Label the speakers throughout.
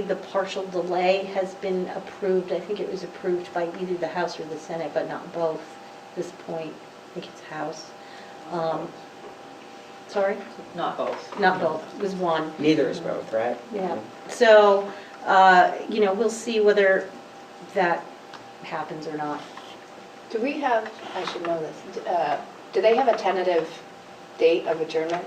Speaker 1: The partial delay has been approved, I think it was approved by either the House or the Senate, but not both at this point. I think it's House. Um, Sorry?
Speaker 2: Not both.
Speaker 1: Not both, it was one.
Speaker 3: Neither is both, right?
Speaker 1: Yeah, so, uh, you know, we'll see whether that happens or not.
Speaker 4: Do we have, I should know this, d- uh, do they have a tentative date of adjournment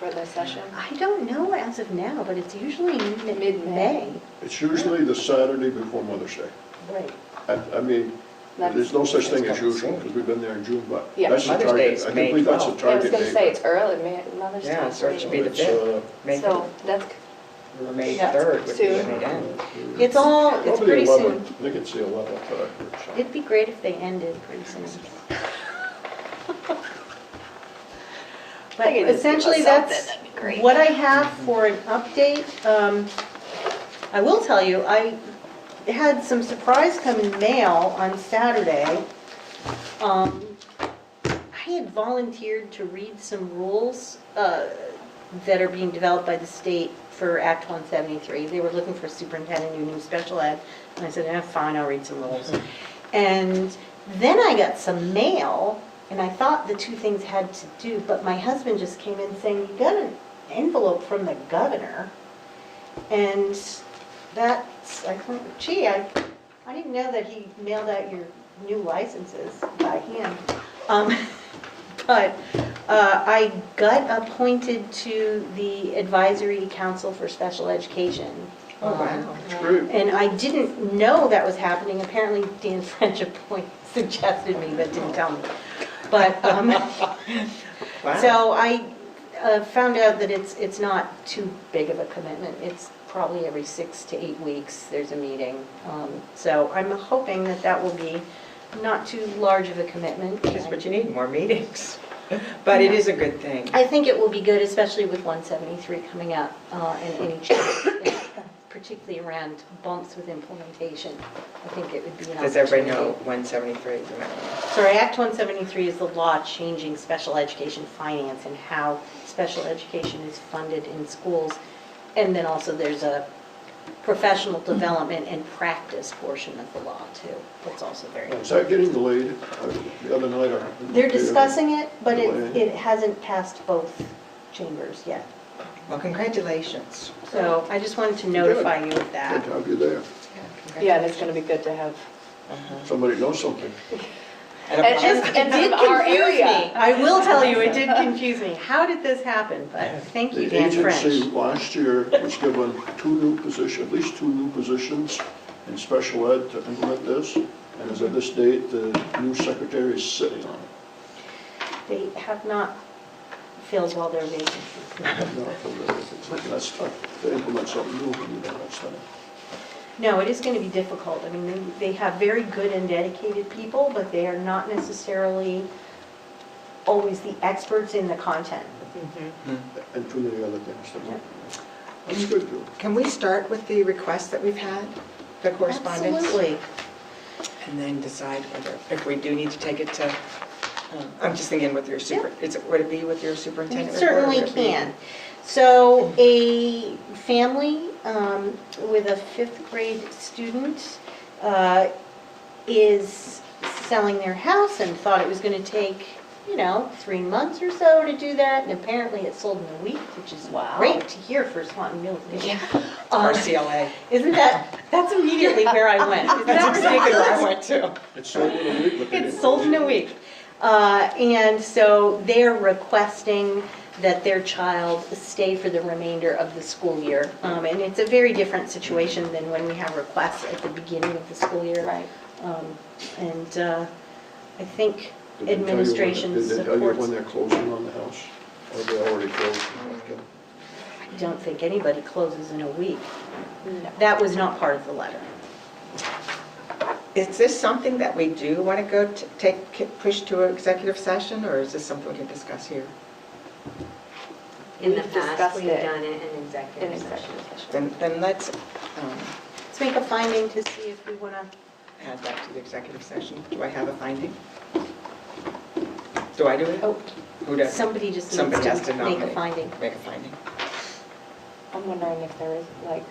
Speaker 4: for the session?
Speaker 1: I don't know as of now, but it's usually mid- mid-May.
Speaker 5: It's usually the Saturday before Mother's Day.
Speaker 1: Right.
Speaker 5: I, I mean, there's no such thing as usual, because we've been there in June, but that's the
Speaker 3: Yeah. Mother's Day
Speaker 5: target.
Speaker 3: is
Speaker 5: I
Speaker 3: May
Speaker 5: can believe that's the
Speaker 3: 12th.
Speaker 4: Yeah, I was
Speaker 5: target
Speaker 4: going to say,
Speaker 5: date.
Speaker 4: it's early, Ma- Mother's Day.
Speaker 3: Yeah, so it should be the
Speaker 5: It's, uh,
Speaker 3: fifth. May
Speaker 4: So that's,
Speaker 3: May
Speaker 1: Yeah.
Speaker 3: third would be
Speaker 4: Soon.
Speaker 3: when it ends.
Speaker 1: It's all, it's
Speaker 5: Probably
Speaker 1: pretty
Speaker 5: 11, I
Speaker 1: soon.
Speaker 5: think it's the 11th that I heard, uh, so.
Speaker 1: It'd be great if they ended pretty soon. But
Speaker 4: They can just give us
Speaker 1: essentially,
Speaker 4: something,
Speaker 1: that's
Speaker 4: that'd be great.
Speaker 1: what I have for an update. Um, I will tell you, I had some surprise come in mail on Saturday. Um, I had volunteered to read some rules uh, that are being developed by the state for Act 173. They were looking for superintendent who knew special ed, and I said, eh, fine, I'll read some rules.
Speaker 4: Mm-hmm.
Speaker 1: And then I got some mail, and I thought the two things had to do, but my husband just came in saying, you got an envelope from the governor. And that's, I thought, gee, I, I didn't know that he mailed out your new licenses by hand. Um, But uh, I got appointed to the Advisory Council for Special Education.
Speaker 3: Oh,
Speaker 1: Um,
Speaker 4: Uh-huh.
Speaker 3: wow.
Speaker 5: It's great.
Speaker 1: and I didn't know that was happening. Apparently Dan French appoint- suggested me, but didn't tell me. But, um,
Speaker 3: Wow.
Speaker 1: so I uh, found out that it's, it's not too big of a commitment. It's probably every six to eight weeks, there's a meeting. Um, So I'm hoping that that will be not too large of a commitment.
Speaker 3: That's what you need, more meetings. But it is a good thing.
Speaker 1: I think it will be good, especially with 173 coming up uh, and any change, particularly around bumps with implementation. I think it would be an opportunity.
Speaker 3: Does everybody know 173 is amendment?
Speaker 1: Sorry, Act 173 is the law changing special education finance and how special education is funded in schools. And then also there's a professional development and practice portion of the law too. That's also very
Speaker 5: Is that getting delayed? I- The other night I.
Speaker 1: They're discussing it, but it,
Speaker 5: Delayed.
Speaker 1: it hasn't passed both chambers yet.
Speaker 3: Well, congratulations.
Speaker 1: So I just wanted to notify you of
Speaker 5: Good to
Speaker 1: that.
Speaker 5: have you there.
Speaker 4: yeah, that's going to be good to have.
Speaker 5: Somebody knows something.
Speaker 3: Uh-huh. And
Speaker 4: And-
Speaker 3: a-
Speaker 4: and- and of our area.
Speaker 1: I will tell you, it did confuse me. How did this happen? But thank you,
Speaker 5: The
Speaker 1: Dan
Speaker 5: agency
Speaker 1: French.
Speaker 5: last year was given two new positions, at least two new positions in special ed to implement this. And as of this date, the new secretary is sitting on it.
Speaker 1: They have not filled all their vacancies.
Speaker 5: No, That's tough to implement something new when you don't have something.
Speaker 1: No, it is going to be difficult. I mean, they- they have very good and dedicated people, but they are not necessarily always the experts in the content.
Speaker 5: And too many other things that were. That's good, though.
Speaker 3: Can we start with the requests that we've had, the correspondence?
Speaker 1: Absolutely.
Speaker 3: And then decide whether, if we do need to take it to, um, I'm just thinking with your super, is it, would it be with your
Speaker 1: We
Speaker 3: superintendent? report, or
Speaker 1: certainly
Speaker 3: would it be-
Speaker 1: can. So a family um, with a fifth grade student uh, is selling their house and thought it was going to take, you know, three months or so to do that, and apparently it sold in a week, which is
Speaker 4: Wow.
Speaker 1: great to hear for Swanton Mills.
Speaker 4: Yeah.
Speaker 1: Um,
Speaker 3: RCLA.
Speaker 1: Isn't that, that's immediately where I went. Isn't that
Speaker 3: That's exactly
Speaker 1: ridiculous?
Speaker 3: where I went to.
Speaker 5: It's sold in a week, but they
Speaker 1: It's
Speaker 5: didn't-
Speaker 1: sold in a week. Uh, And so they're requesting that their child stay for the remainder of the school year. Um, And it's a very different situation than when we have requests at the beginning of the school year.
Speaker 4: Right.
Speaker 1: Um, And uh, I think
Speaker 5: Did they tell you when-
Speaker 1: administration
Speaker 5: Did they tell you
Speaker 1: supports,
Speaker 5: when they're closing on the house? Or they already closed?
Speaker 1: Mm-hmm. I don't think anybody closes in a week.
Speaker 4: No.
Speaker 1: That was not part of the letter.
Speaker 3: Is this something that we do want to go to, take, ki- push to executive session, or is this something we can discuss here?
Speaker 6: In the
Speaker 4: We've
Speaker 6: past,
Speaker 4: discussed
Speaker 6: we've
Speaker 4: it
Speaker 6: done it in
Speaker 4: In
Speaker 6: executive session.
Speaker 4: executive session.
Speaker 3: Then, then let's um,
Speaker 1: Let's make a finding to see if we want to
Speaker 3: add that to the executive session. Do I have a finding? Do I do it?
Speaker 1: Oh,
Speaker 3: Who does?
Speaker 1: Somebody just needs
Speaker 3: Somebody has
Speaker 1: to
Speaker 3: to
Speaker 1: make a
Speaker 3: nominate.
Speaker 1: finding.
Speaker 3: Make a finding.
Speaker 4: I'm wondering if there is, like,